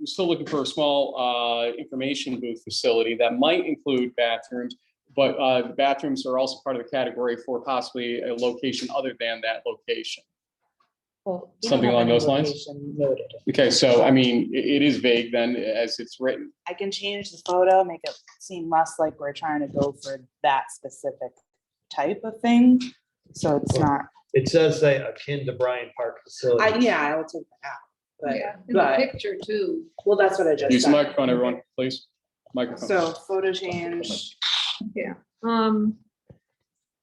we're still looking for a small uh, information booth facility that might include bathrooms. But uh, the bathrooms are also part of the category for possibly a location other than that location. Well, you don't Something have along any those lines? location noted. Okay, so I mean, i- it is vague then as it's written. I can change the photo, make it seem less like we're trying to go for that specific type of thing. So it's not, It says they akin to Bryant Park I, facility. yeah, I will take that out. But, Yeah, in the but, picture too. well, that's what I just Use the said. microphone, everyone, please. Microphone. So photo change, Um,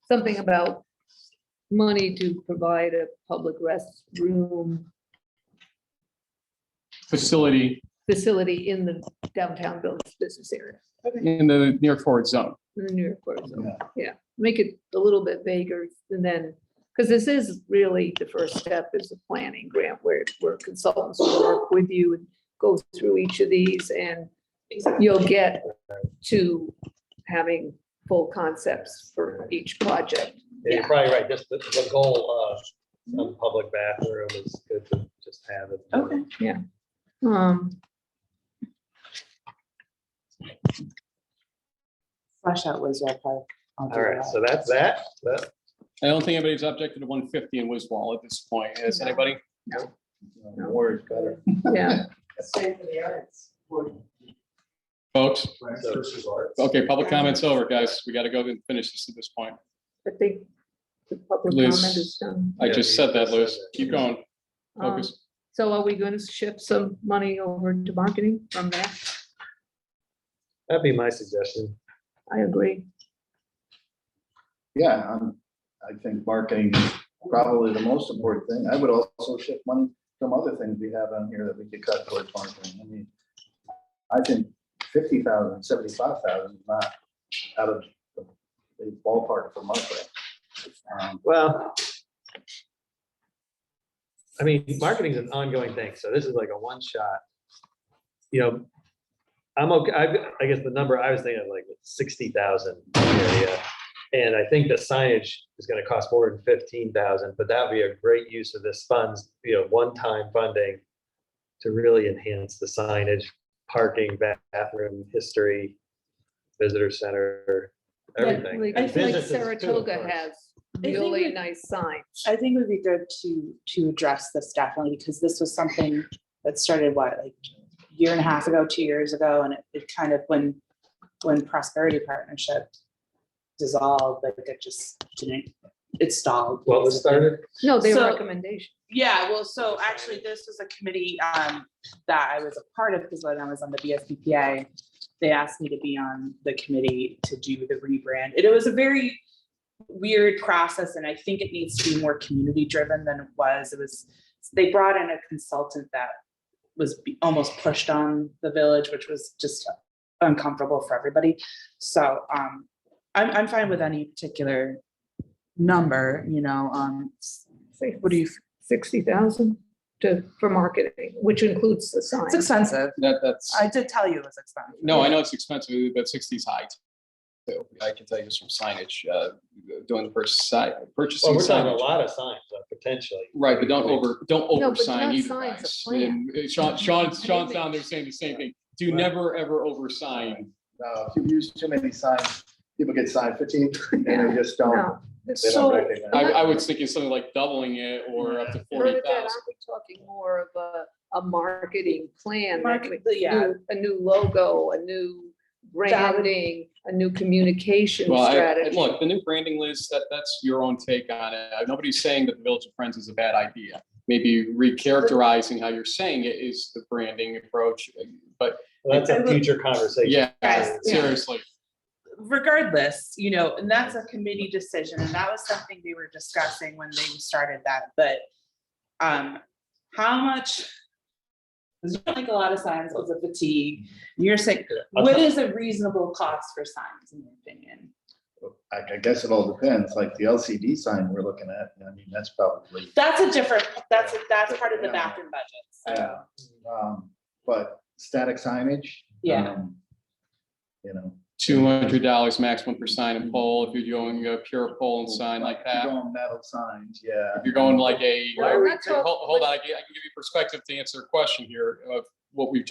something about money to provide a public restroom Facility facility in the downtown Village business area, in the near forward zone. in the New York Port Zone. Yeah, make it a little bit vaguer and then, because this is really the first step is the planning grant where, where consultants will work with you and go through each of these and you'll get to having full concepts for each project. Yeah, You're probably right, just the, the goal of some public bathroom is good to just have it. okay. Um, Flush out Wizard Park. I'll do All right, that. so that's that, that, I don't think anybody's objected to one fifty in Wiswall at this point. Is anybody? word better. yeah, Folks, So- okay, public comments over, guys. We gotta go and finish this at this point. I think the public Liz. comment is done. I Yeah, just you said that, said Liz. that. Keep going. Um, Focus. So are we going to shift some money over to marketing from that? That'd be my suggestion. I agree. Yeah, I'm, I think marketing is probably the most important thing. I would also shift money from other things we have on here that we could cut towards marketing. I mean, I think fifty thousand, seventy-five thousand, is not out of the the ballpark for marketing. Um, Well. I mean, marketing is an ongoing thing, so this is like a one shot. You know, I'm okay, I, I guess the number I was thinking of like sixty thousand area. And I think the signage is gonna cost more than fifteen thousand, but that'd be a great use of this funds, you know, one-time funding. To really enhance the signage, parking, bathroom, history, visitor center, everything. Like And like businesses too, of Saratoga course. has think really we- nice signs. I think it would be good to, to address this definitely, because this was something that started, what, like a year and a half ago, two years ago, and it, it kind of, when, when Prosperity Partnership dissolved, like it just didn't, it stalled. What was started? No, their So- recommendation. Yeah, well, so actually, this was a committee um that I was a part of, because when I was on the BSBPA, they asked me to be on the committee to do the rebrand. And it was a very weird process, and I think it needs to be more community-driven than it was. It was, they brought in a consultant that was be- almost pushed on the village, which was just uncomfortable for everybody. So um, I'm, I'm fine with any particular number, you know, um, what do you Sixty thousand to, for marketing, which includes the It's signs. expensive. That, that's, I did tell you it was expensive. no, I know it's expensive, but sixty's high. too. I can tell you just from signage, uh, doing the purchase side, Well, purchasing we're talking a signage. lot of signs, uh, potentially. Right, but don't over, don't but over not sign either, signs, a guys. plan. And uh, Sean, Sean, I Sean's think- down there saying the same thing. Do Right. never, ever over sign. uh, If you use too many signs, people get sign fatigue and they just don't. No. they don't So- recognize. I, I was thinking something like doubling it or up to Part forty of that, aren't thousand. we talking more of a, a marketing plan? like Market, mm. we- yeah, new- a new logo, a new That would- branding, a new communication Well, I- I- strategy. look, the new branding list, that, that's your own take on it. Uh, Nobody's saying that the Village of Friends is a bad idea. Maybe recharacterizing how you're saying it is the branding approach, but Well, That's I a would- future conversation. yeah, Guys, yeah. seriously. regardless, you know, and that's a committee decision, and that was something we were discussing when they started that, but um, how much? There's not like a lot of signs, it was a fatigue, you're saying, I'll what tell- is a reasonable cost for signs, in your opinion? I, I guess it all depends, like the LCD sign we're looking at, I mean, that's probably, That's a different, that's, a- that's part of the bathroom budget, so, Yeah. um, but static signage. Yeah. um, You know. Two hundred dollars maximum per sign and pole, if you're doing a pure pole and sign like If that. you're going metal signs, yeah. If you're going like a, Well, hold that's all- hold on, I can I can give you perspective to answer a question here of what we've just